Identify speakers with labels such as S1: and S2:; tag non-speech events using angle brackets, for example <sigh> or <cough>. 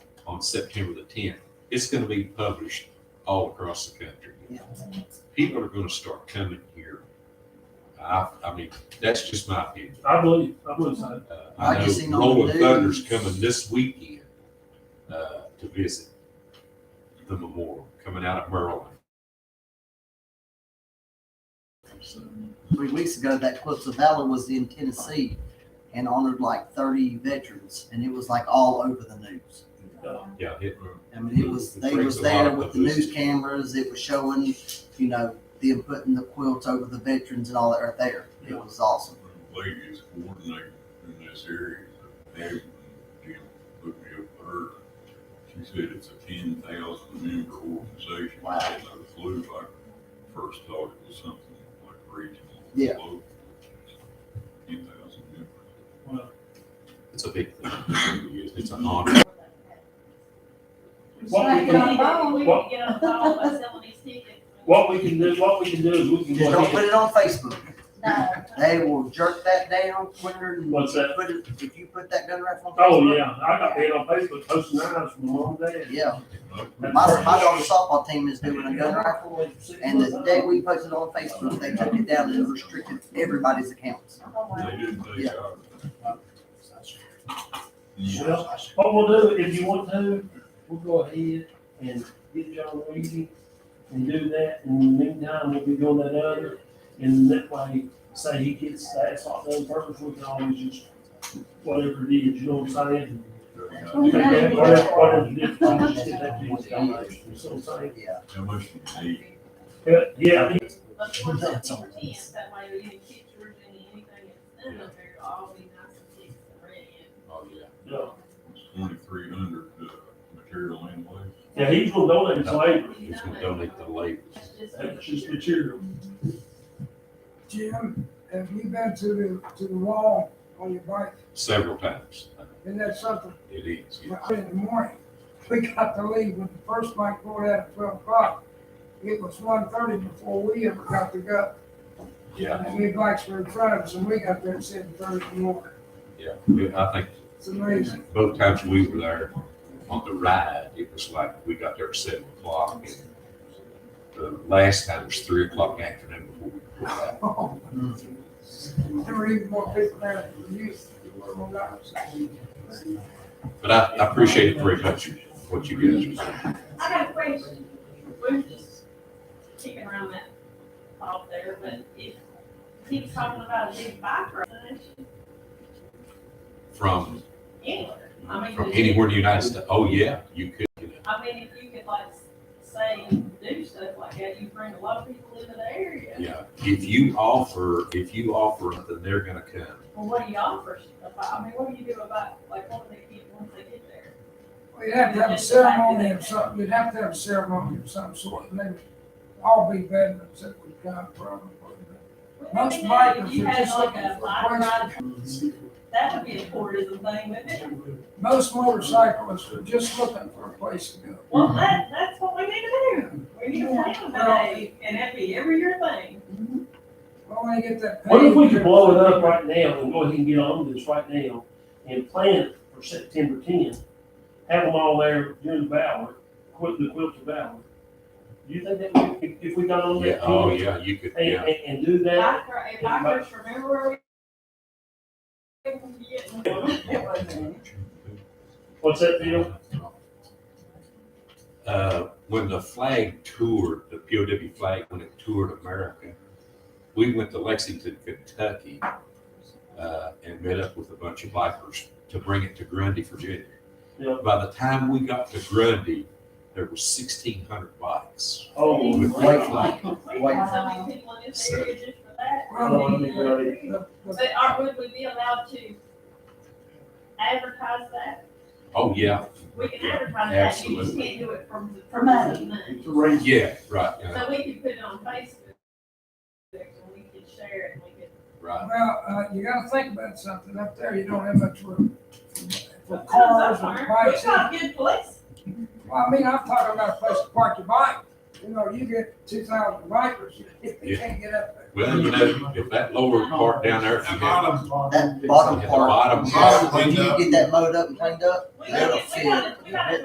S1: on September the tenth. It's gonna be published all across the country. People are gonna start coming here. I, I mean, that's just my opinion.
S2: I believe, I believe so.
S1: Uh, I
S3: I just seen
S1: know
S3: on the
S1: Rolling Thunder's
S3: news.
S1: coming this weekend, uh, to visit the memorial, coming out of Maryland. So,
S3: Three weeks ago, that Quetzalcoatl was in Tennessee and honored like thirty veterans, and it was like all over the news.
S1: Yeah, it,
S3: I mean, it was,
S1: It
S3: they
S1: brings
S3: was
S1: a lot
S3: there
S1: of
S3: with the news
S1: publicity.
S3: cameras, it was showing, you know, them putting the quilts over the veterans and all that right there. It was awesome.
S4: lady is coordinating in this area, Meg, Jim looked me up for her. She said it's a ten thousand member organization.
S3: Wow.
S4: I had no clue, I first thought it was something like regional.
S3: Yeah.
S4: Ten thousand members.
S1: it's a big thing. It's an honor.
S2: What we
S5: Get on the
S2: can,
S5: phone, we
S2: what-
S5: can get on the phone by selling these tickets.
S2: what we can do, what we can do is we can
S3: Just
S2: go
S3: don't put
S2: ahead.
S3: it on Facebook.
S5: No.
S3: They will jerk that down quicker than.
S2: What's that?
S3: Put it, if you put that gun rifle on
S2: Oh,
S3: Facebook.
S2: yeah, I got paid on Facebook posting that from mom and dad.
S3: Yeah,
S2: That's
S3: my,
S2: right.
S3: my daughter's softball team is doing a gun rifle, and the day we posted on Facebook, they took it down and restricted everybody's accounts.
S4: They didn't take
S3: Yeah.
S4: out.
S2: Well, What we'll do, if you want to, we'll go ahead and get John Weezy and do that, and in the meantime, we'll be doing that other. And that way, say he gets that, it's not done first, we can always just, whatever it is, you know what I'm saying?
S5: We can
S2: Okay,
S5: have-
S2: Whatever, whatever it is, we just get that to his donation, you know what I'm saying?
S3: Yeah,
S4: How much do you need?
S2: Yeah, Yeah, I mean,
S5: But for the ten, that way we can keep Georgia and anything that's in there, all be nice and big and red.
S1: Oh, yeah.
S2: yeah.
S4: Twenty-three hundred, uh, material and labor.
S2: yeah, he's gonna donate his labor,
S1: He's gonna donate the labor.
S5: That's just.
S2: that's just material.
S6: Jim, have you been to the, to the wall on your bike?
S1: several times. Uh,
S6: Isn't that something?
S1: It is.
S6: When I- In the morning, <laughs> we got to leave when the first bike pulled out at twelve o'clock. It was one thirty before we ever got to go.
S1: Yeah,
S6: And we bikes were in front of us and we got there at seven thirty in the morning.
S1: yeah. We- I think
S6: It's amazing. <laughs>
S1: both times we were there on the ride, it was like we got there at seven o'clock. and The last time was three o'clock in the afternoon before we pulled out.
S6: There were even more people there than you were when I was.
S1: But I, I appreciate it very much, what you guys are doing.
S5: I got a question. We're just kicking around that off there, but if he was talking about a big bike ride,
S1: From,
S5: anywhere, I mean.
S1: from anywhere in the United States, oh, yeah, you could, you know.
S5: I mean, if you could like say, do stuff like that, you bring a lot of people into the area.
S1: Yeah, if you offer, if you offer, it, then they're gonna come.
S5: Well, what do you offer? about- I mean, what do you do about, like, what do they get once they get there?
S6: We'd have to have a ceremony or something, we'd have to have a ceremony of some sort, and they would all be veterans that would come from. Most bikers
S5: If you
S6: are
S5: had
S6: just
S5: like
S6: looking
S5: a
S6: for
S5: bike
S6: places.
S5: ride, that would be a tourism thing, wouldn't it?
S6: Most motorcyclists are just looking for a place to go.
S5: Well, that, that's what we need to do. We need to plan a day, and that'd be every year thing.
S6: Well, when they get that.
S2: What if we
S6: paid-
S2: could blow it up right now and go ahead and get on this right now and plan it for September tenth? Have them all there during the Valor, quit the quilt of Valor. Do you think that we- if, if we got on
S1: Yeah,
S2: that
S1: oh,
S2: ten
S1: yeah, you could,
S2: and,
S1: yeah.
S2: and, and do that?
S5: Bike, ri- and bikers, remember where we. It wasn't.
S1: Oh,
S2: What's that deal?
S1: Uh, when the flag toured, the POW flag, when it toured America, we went to Lexington, Kentucky, uh, and met up with a bunch of bikers to bring it to Grundy, Virginia.
S2: Yeah.
S1: By the time we got to Grundy, there were sixteen hundred bikes
S2: Oh,
S1: with
S2: wow.
S1: that flag.
S5: We have so many people in this area just for that.
S6: Well,
S2: I mean, uh,
S6: The- the-
S5: But are, would we be allowed to advertise that?
S1: Oh, yeah,
S5: We can advertise that, you just
S1: Absolutely.
S5: can't do it from, the- from us.
S1: yeah, right, yeah,
S5: So we could put it on Facebook, and we could share it, and we could.
S1: right.
S6: Well, uh, you gotta think about something, up there you don't have much room. For cars
S5: That's
S6: and
S5: our-
S6: bikes.
S5: We've got a good place.
S6: Well, I mean, I'm talking about a place to park your bike, you know, you get two thousand bikers, if you
S1: Yeah.
S6: can't get up there.
S1: Well, you know, if that lower part down there, if you had
S3: that bottom
S1: Yeah, the
S3: part.
S1: bottom
S3: bottom
S4: part.
S3: When you get that mowed up and cleaned up,
S5: We
S3: that'll
S5: got, we
S3: fit.
S5: got, we got a